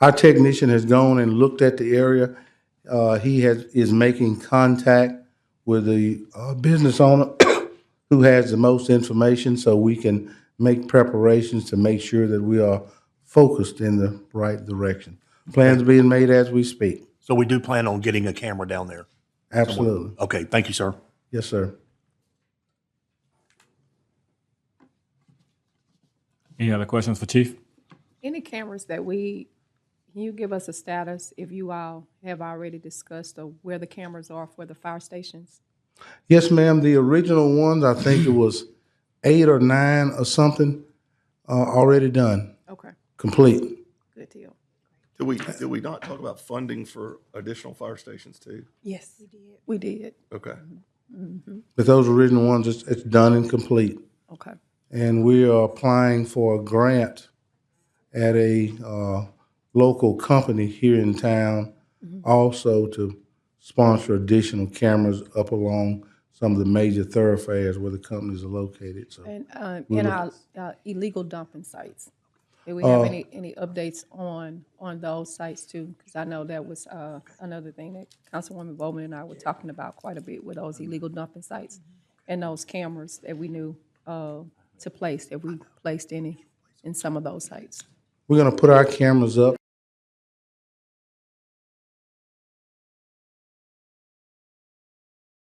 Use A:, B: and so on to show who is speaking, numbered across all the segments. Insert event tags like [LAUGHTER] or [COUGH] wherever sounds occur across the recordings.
A: Our technician has gone and looked at the area. Uh, he has, is making contact with the, uh, business owner [COUGHS] who has the most information so we can make preparations to make sure that we are focused in the right direction. Plans being made as we speak.
B: So we do plan on getting a camera down there.
A: Absolutely.
B: Okay, thank you, sir.
A: Yes, sir.
C: Any other questions for Chief?
D: Any cameras that we, can you give us a status if you all have already discussed of where the cameras are for the fire stations?
A: Yes, ma'am. The original ones, I think it was eight or nine or something, uh, already done,
D: Okay,
A: complete.
D: good deal.
E: Did we, did we not talk about funding for additional fire stations too?
D: Yes, we did.
E: Okay.
A: But those original ones, it's, it's done and complete.
D: Okay,
A: And we are applying for a grant at a uh, local company here in town also to sponsor additional cameras up along some of the major thoroughfares where the companies are located. So
D: and, uh, and our uh, illegal dumping sites. Do we have any, any updates on, on those sites too? Because I know that was, uh, another thing that Councilwoman Bowman and I were talking about quite a bit with those illegal dumping sites and those cameras that we knew, uh, to place, if we placed any in some of those sites.
A: we're going to put our cameras up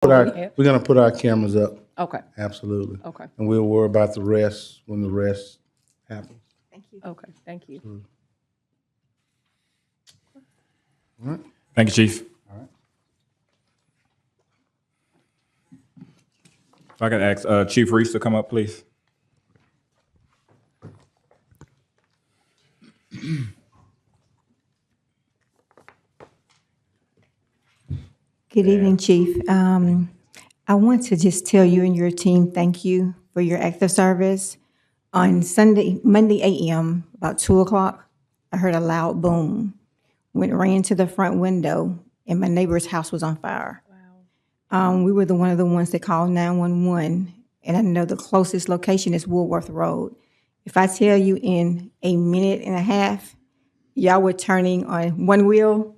A: put our-
D: Yeah.
A: we're going to put our cameras up,
D: Okay,
A: absolutely.
D: okay,
A: And we'll worry about the rest when the rest happens.
D: okay, thank you.
C: Thank you, Chief. If I could ask uh, Chief Reese to come up, please.
F: Good evening, Chief. Um, I want to just tell you and your team, thank you for your active service. On Sunday, Monday AM, about two o'clock, I heard a loud boom. Went ran to the front window and my neighbor's house was on fire. Um, we were the one of the ones that called nine one one, and I know the closest location is Woolworth Road. If I tell you in a minute and a half, y'all were turning on one wheel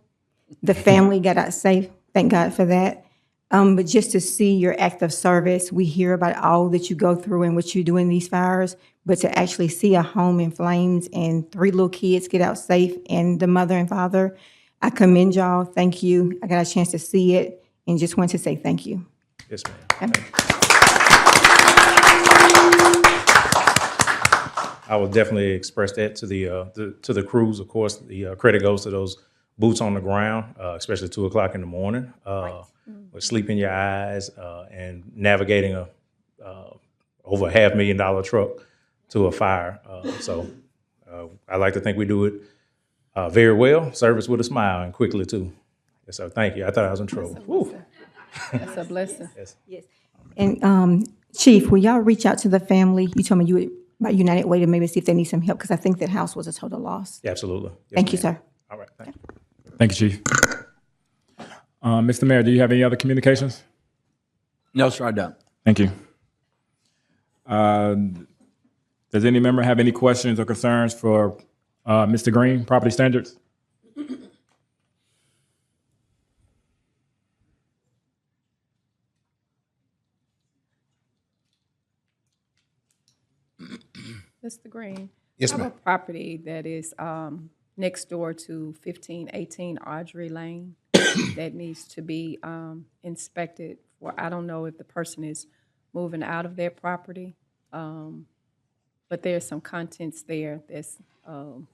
F: the family got out safe. Thank God for that. Um, but just to see your act of service, we hear about all that you go through and what you do in these fires, but to actually see a home in flames and three little kids get out safe and the mother and father, I commend y'all. Thank you. I got a chance to see it and just want to say thank you.
C: Yes, ma'am.
G: I will definitely express that to the, uh, the to the crews. Of course, the uh, credit goes to those boots on the ground, uh, especially two o'clock in the morning, uh, with sleep in your eyes uh, and navigating a uh, over a half million dollar truck to a fire. Uh, so uh, I like to think we do it uh, very well, service with a smile, and quickly too. Yes, sir. Thank you. I thought I was in trouble. Woo.
D: That's a blessing.
F: And um, Chief, will y'all reach out to the family? You told me you would about United Way to maybe see if they need some help because I think that house was a total loss.
G: Absolutely. Yes,
F: Thank you,
G: ma'am.
F: sir.
G: All right. Thank you.
C: Thank you, Chief. Uh, Mr. Mayor, do you have any other communications?
H: No, sir, I don't.
C: Thank you. Uh, does any member have any questions or concerns for uh, Mr. Green, property standards?
D: Mr. Green?
G: Yes,
D: I have a property that is um, next door to 1518 Audrey Lane that needs to be um, inspected for, I don't know if the person is moving out of their property, um, but there's some contents there that's um,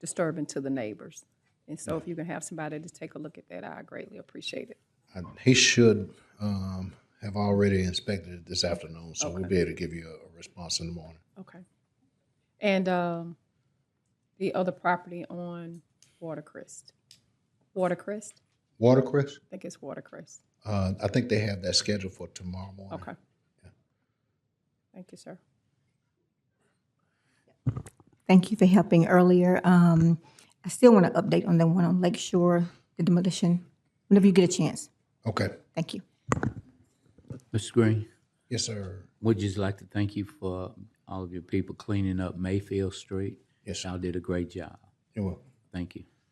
D: disturbing to the neighbors. And so if you can have somebody to take a look at that, I greatly appreciate it.
I: I- He should um, have already inspected it this afternoon, so we'll be able to give you a- a response in the morning.
D: Okay. And um, the other property on Watercrest. Watercrest?
I: Watercress,
D: I think it's Watercrest.
I: uh, I think they have that scheduled for tomorrow morning.
D: Okay. Thank you, sir.
F: Thank you for helping earlier. Um, I still want to update on the one on Lake Shore, the demolition, whenever you get a chance.
I: Okay,
F: Thank you.
H: Mr. Green,
I: yes, sir.
H: we'd just like to thank you for all of your people cleaning up Mayfield Street.
I: Yes, sir.
H: Y'all did a great job.
I: You're welcome.
H: Thank you.